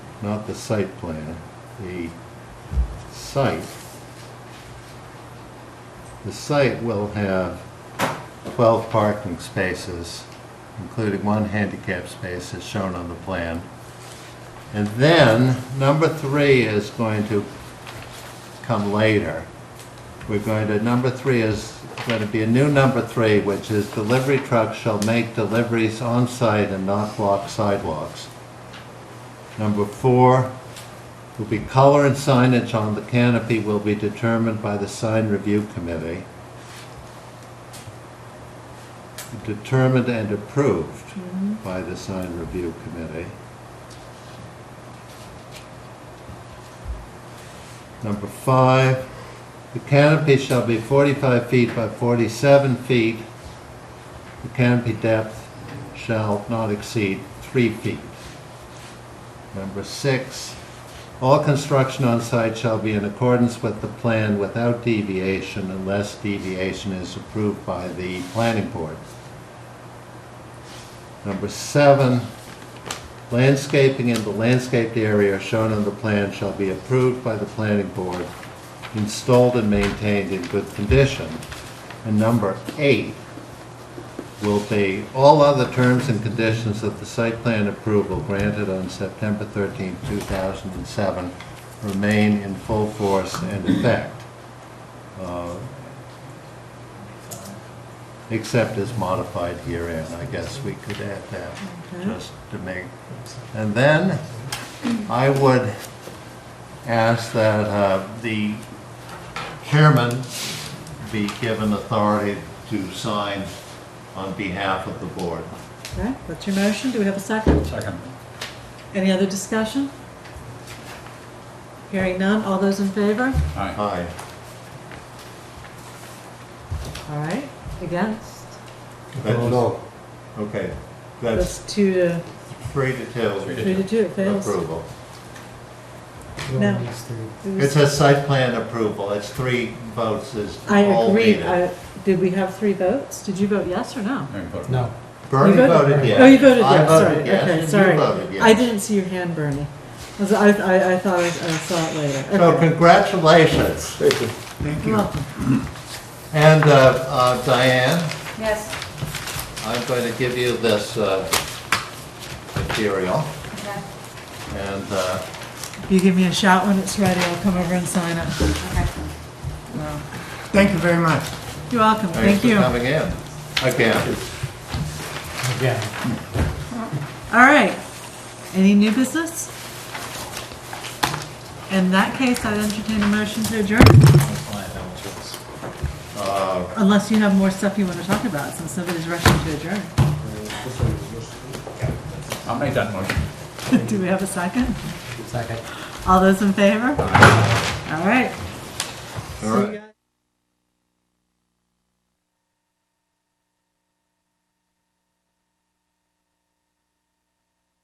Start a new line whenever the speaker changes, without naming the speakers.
not the site plan, the site. The site will have 12 parking spaces, including one handicap space as shown on the plan. And then, number three is going to come later. We're going to, number three is going to be a new number three, which is delivery trucks shall make deliveries on site and not block sidewalks. Number four will be color and signage on the canopy will be determined by the sign review committee. Determined and approved by the sign review committee. Number five, the canopy shall be 45 feet by 47 feet. The canopy depth shall not exceed 3 feet. Number six, all construction on site shall be in accordance with the plan without deviation unless deviation is approved by the planning board. Number seven, landscaping in the landscaped area shown on the plan shall be approved by the planning board, installed and maintained in good condition. And number eight will be all other terms and conditions of the site plan approval granted on September 13, 2007 remain in full force and effect, uh, except as modified herein. I guess we could add that just to make. And then I would ask that uh, the chairman be given authority to sign on behalf of the board.
Okay, that's your motion. Do we have a second?
Second.
Any other discussion? Hearing none. All those in favor?
Aye.
Aye.
All right, against?
Okay,
That's
that's
two to,
three to two
three to two, it fails.
approval.
No. It
It
was-
says site plan approval, it's three votes is
I
all
agreed.
needed.
I- Did we have three votes? Did you vote yes or no?
No.
Bernie
You voted-
voted yes.
Oh, you voted
I
yes, sorry.
voted yes,
Okay,
and
sorry.
You voted yes.
I didn't see your hand, Bernie. I was- I, I I thought I I saw it later.
So
Okay.
congratulations.
Thank you.
And uh, uh, Diane?
Yes,
I'm going to give you this uh, material,
okay,
and uh,
You give me a shout when it's ready. I'll come over and sign it.
okay.
Thank you very much.
You're welcome.
thanks
Thank
for
you. All
coming in. Again,
Again.
right. Any new business? In that case, I'd entertain a motion to adjourn.
uh,
Unless you have more stuff you want to talk about, since somebody's rushing to adjourn.
I'll make that motion.
Do we have a second?
Second.
All those in favor? All right.
all right.